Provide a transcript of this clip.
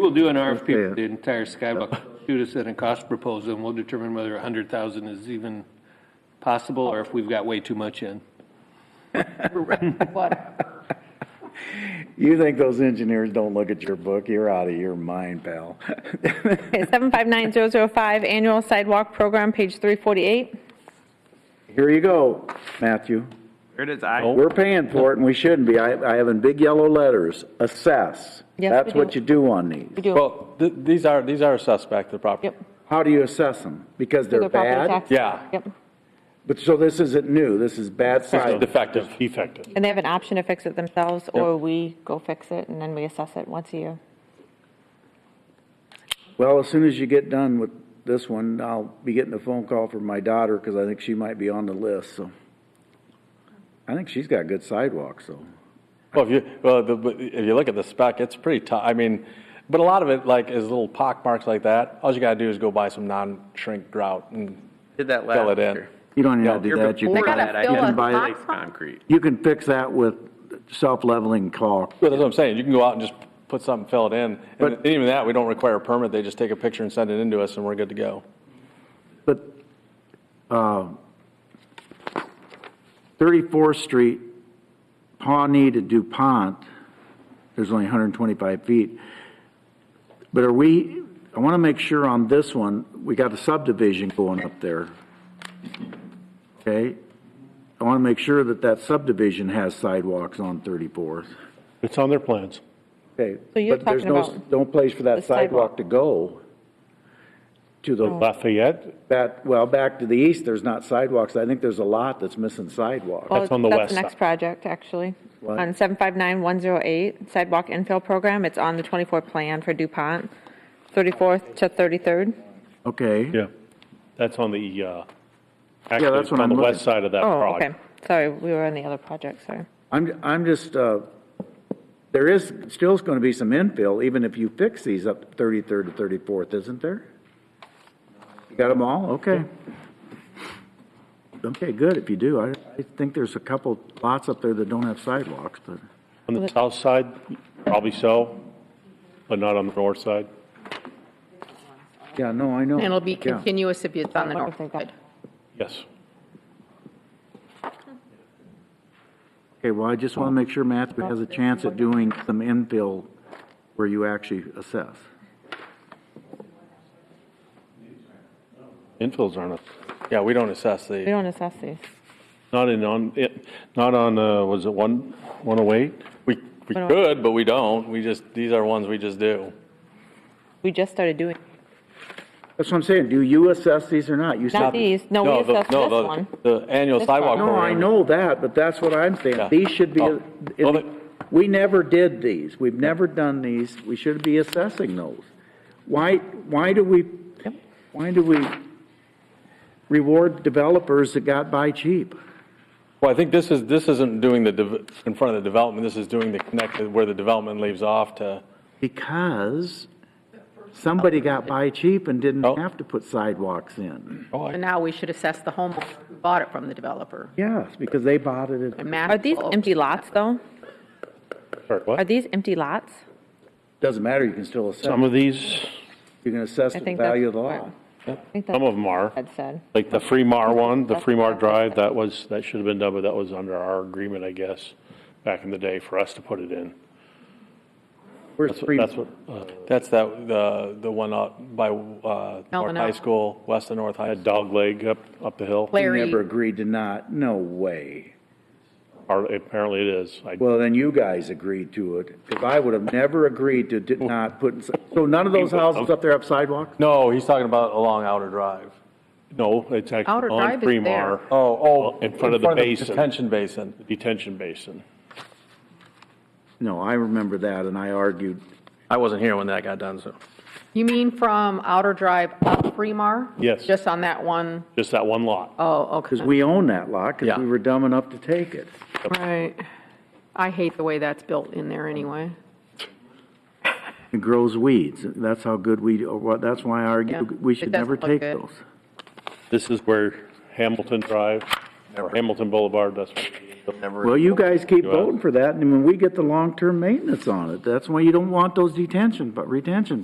We'll do an RFP for the entire skyblock. Shoot us in a cost proposal, and we'll determine whether a hundred thousand is even possible, or if we've got way too much in. You think those engineers don't look at your book? You're out of your mind, pal. Okay, 759005, annual sidewalk program, page 348. Here you go, Matthew. Here it is. I, We're paying for it and we shouldn't be. I, I have in big yellow letters, assess. Yes, That's we what do. you do on these. We do, Well, th- these are, these are assessed back to the property. yep. How do you assess them? Because through they're the property bad? tax. Yeah. Yep. But, so this isn't new. This is bad It's side. Defective. Defective. And they have an option to fix it themselves, or we go fix it, and then we assess it once a year. Well, as soon as you get done with this one, I'll be getting a phone call from my daughter because I think she might be on the list, so. I think she's got good sidewalks, so. Well, if you, well, the, but if you look at the spec, it's pretty tough. I mean, but a lot of it like is little pock marks like that. All you gotta do is go buy some non-shrink grout and did that last fill it in. year. You don't even have to do Year that. You before can- that, I you did can buy- base concrete. You can fix that with self-leveling caulk. But that's what I'm saying. You can go out and just put something, fill it in. But- And even that, we don't require a permit. They just take a picture and send it into us and we're good to go. But uh, 34th Street, Pawnee to DuPont, there's only 125 feet. But are we, I want to make sure on this one, we got a subdivision going up there. Okay? I want to make sure that that subdivision has sidewalks on 34th. It's on their plans. Okay. So you're But there's talking no- about No place for the that sidewalk. sidewalk Oh. to go to the Lafayette, That, well, back to the east, there's not sidewalks. I think there's a lot that's missing sidewalks. Well, That's on the That's west the next side. project, actually. What? On 759108, sidewalk infill program, it's on the 24 plan for DuPont, 34th to 33rd. Okay. yeah. That's on the, uh, Yeah, actually, that's it's what on the I'm west looking. side of that Oh, okay, project. sorry, we were on the other project, sorry. I'm, I'm just, uh, there is, still going to be some infill, even if you fix these up 33rd to 34th, isn't there? You got them all? Okay. Okay, good, if you do. I, I think there's a couple lots up there that don't have sidewalks, but, On the south side, probably so, but not on the north side. yeah, no, I know. And it'll be Yeah. continuous if it's on the Wonder north if they've got- side. Yes. Okay, well, I just want to make sure Matthew has a chance at doing some infill where you actually assess. Infills aren't, a- yeah, we don't assess We the, don't assess these. Not in, on, eh, it, not on, uh, was it one, one oh eight? we, we could, but we don't. We just, these are ones we just do. We just started doing, That's what I'm saying. Do you assess these or not? You not said these, no, we the- assessed no, this the- one. The annual This one. sidewalk No, I program. know that, but that's what I'm saying. Yeah. These should be, Oh. Well, they- we never did these. We've never done these. We should be assessing those. Why, why do we, why do we reward developers that got by cheap? Well, I think this is, this isn't doing the, dev- in front of the development, this is doing the connect, where the development leaves off to, Because somebody got by cheap and didn't Oh. have to put sidewalks in. And now we should assess the homeowner who bought it from the developer. Yes, because they bought it. It And match Are these all- empty lots, though? Sorry, Are what? these empty lots? doesn't matter. You can still assess. Some of these, You can assess I the think that's value of the part. lot. I think some that's of them are, what Ed said. like the Fremar one, the Fremar Drive, that was, that should have been done, but that was under our agreement, I guess, back in the day for us to put it in. Where's That's what, Fremont? that's what, uh, that's that, the, the one out by, uh, North Melvin High Elk. School, west of North High. that dog leg up, up the hill. You never Larry, agreed to not, no way. Or Apparently it is. I- Well, then you guys agreed to it, because I would have never agreed to did not put, so none of those houses up there have sidewalks? No, he's talking about along Outer Drive. No, it's Outer actually on Drive is there. Fremar Oh, oh. In front of the basin. Detention basin. Detention Basin. No, I remember that, and I argued, I wasn't here when that got done, so. you mean from Outer Drive up Fremar? Yes. Just on that one? Just that one lot. Oh, okay. because we own that lot, because Yeah. we were dumb enough to take it. Right. I hate the way that's built in there anyway. It grows weeds, that's how good we, or what- that's why I Yeah, argued, we it should doesn't never look take good. those. This is where Hamilton Drive, or Hamilton Boulevard, that's where it never. Well, you guys keep You wanna- voting for that, and when we get the long-term maintenance on it, that's why you don't want those detention, but retention